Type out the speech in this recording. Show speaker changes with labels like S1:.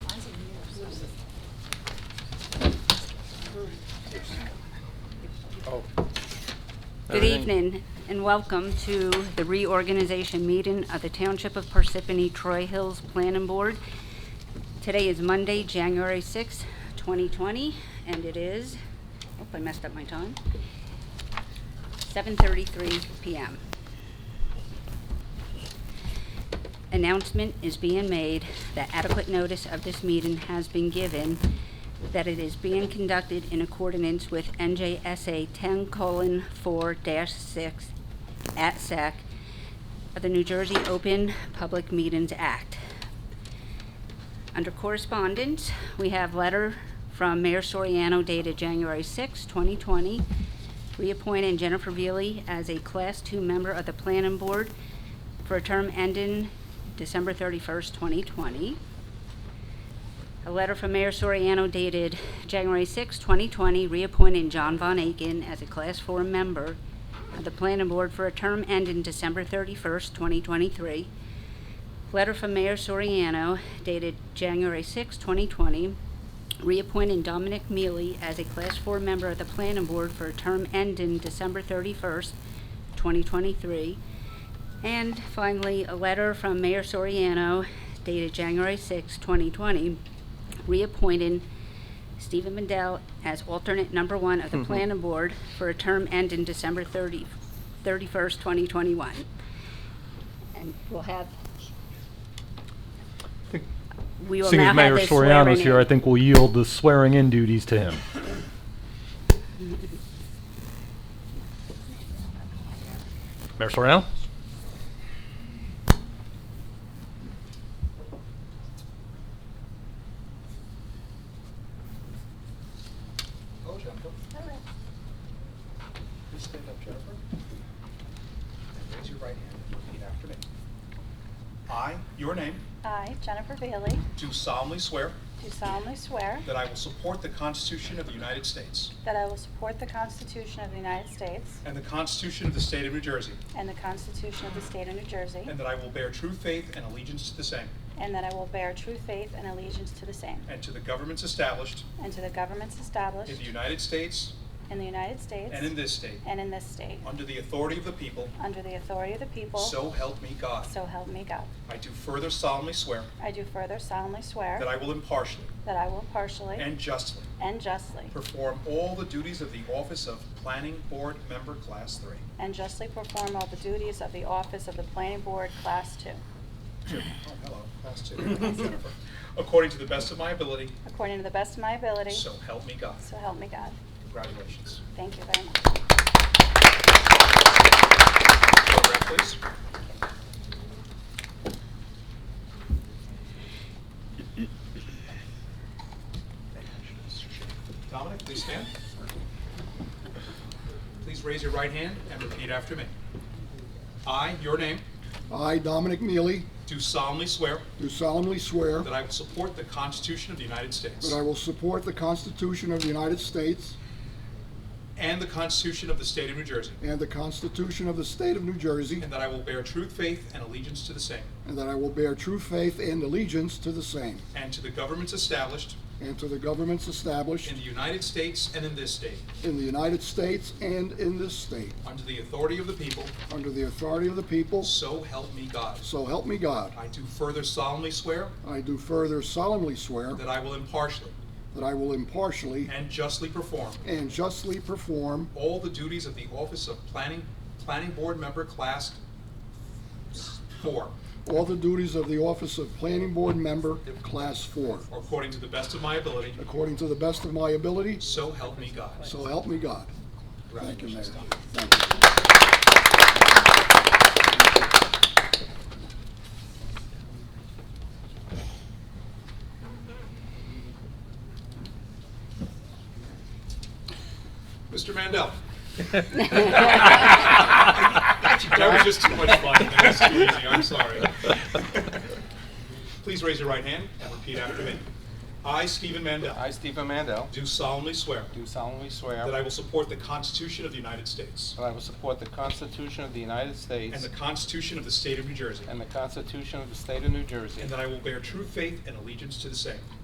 S1: Good evening and welcome to the reorganization meeting of the Township of Parsippany Troy Hills Planning Board. Today is Monday, January sixth, 2020, and it is, oh, I messed up my time, 7:33 PM. Announcement is being made that adequate notice of this meeting has been given, that it is being conducted in accordance with NJSA 10:4-6 at SAC of the New Jersey Open Public Meetings Act. Under correspondence, we have letter from Mayor Soriano dated January 6, 2020, reappointing Jennifer Veely as a Class II member of the Planning Board for a term ending December 31st, 2020. A letter from Mayor Soriano dated January 6, 2020, reappointing John Von Aiken as a Class 4 member of the Planning Board for a term ending December 31st, 2023. Letter from Mayor Soriano dated January 6, 2020, reappointing Dominic Mealy as a Class 4 member of the Planning Board for a term ending December 31st, 2023. And finally, a letter from Mayor Soriano dated January 6, 2020, reappointing Stephen Mendel as alternate number one of
S2: Mm-hmm.
S1: the Planning Board for a term ending December 30 31st, 2021. And we'll have, we will
S2: Seeing
S1: now
S2: as Mayor
S1: have this swearing
S2: Soriano's here, I
S1: in.
S2: think we'll yield the swearing in duties to him. Mayor Soriano?
S3: Hello, Jennifer. Please stand up, Jennifer. And raise your right hand and repeat after me. I, your name,
S4: I, Jennifer Bailey,
S3: do solemnly swear
S4: do solemnly swear
S3: that I will support the Constitution of the United States
S4: that I will support the Constitution of the United States
S3: and the Constitution of the State of New Jersey,
S4: and the Constitution of the State of New Jersey,
S3: and that I will bear true faith and allegiance to the same
S4: and that I will bear true faith and allegiance to the same,
S3: and to the governments established
S4: and to the governments
S3: in the
S4: established
S3: United States
S4: in the United States
S3: and in this state,
S4: and in this state,
S3: under the authority of the people,
S4: under the authority of the people,
S3: so help me God.
S4: so help me God.
S3: I do further solemnly swear
S4: I do further solemnly
S3: that
S4: swear
S3: I will impartially
S4: that I will impartially
S3: and justly
S4: and justly
S3: Perform all the duties of the office of Planning Board Member Class 3
S4: and justly perform all the duties of the office of the Planning Board Class Two,
S3: Two. Oh, hello, Class 2. Jennifer. According to the best of my ability,
S4: according to the best of my ability,
S3: so help me God.
S4: so help me God.
S3: Congratulations.
S4: Thank you very much.
S3: Program, please. Dominic, please stand. Please raise your right hand and repeat after me. I, your name,
S5: I, Dominic Neely,
S3: do solemnly swear
S5: do solemnly swear
S3: That I will support the Constitution of the United States.
S5: that I will support the Constitution of the United States
S3: And the Constitution of the State of New Jersey.
S5: and the Constitution of the State of New Jersey,
S3: And that I will bear true faith and allegiance to the same.
S5: and that I will bear true faith and allegiance to the same,
S3: And to the governments established
S5: and to the governments established
S3: in the United States and in this state,
S5: in the United States and in this state,
S3: under the authority of the people,
S5: under the authority of the people,
S3: so help me God.
S5: so help me God.
S3: I do further solemnly swear
S5: I do further solemnly swear
S3: that I will impartially
S5: that I will impartially
S3: and justly perform
S5: and justly perform
S3: all the duties of the office of Planning, Planning Board Member Class 4,
S5: all the duties of the office of Planning Board Member, Class 4,
S3: according to the best of my ability,
S5: according to the best of my ability,
S3: so help me God.
S5: So help me God. Thank you, Mayor.
S3: Congratulations, Tom.
S5: Thank you.
S3: Mr. Mandel. That was just too much fun. man. That's too easy. I'm sorry. Please raise your right hand and repeat after me. I, Stephen Mandel,
S6: I, Stephen Mandel,
S3: do solemnly swear
S6: do solemnly swear
S3: that I will support the Constitution of the United States
S6: that I will support the Constitution of the United
S3: and
S6: States
S3: the Constitution of the State of New Jersey,
S6: and the Constitution of the State of New Jersey,
S3: and that I will bear true faith and allegiance to the same,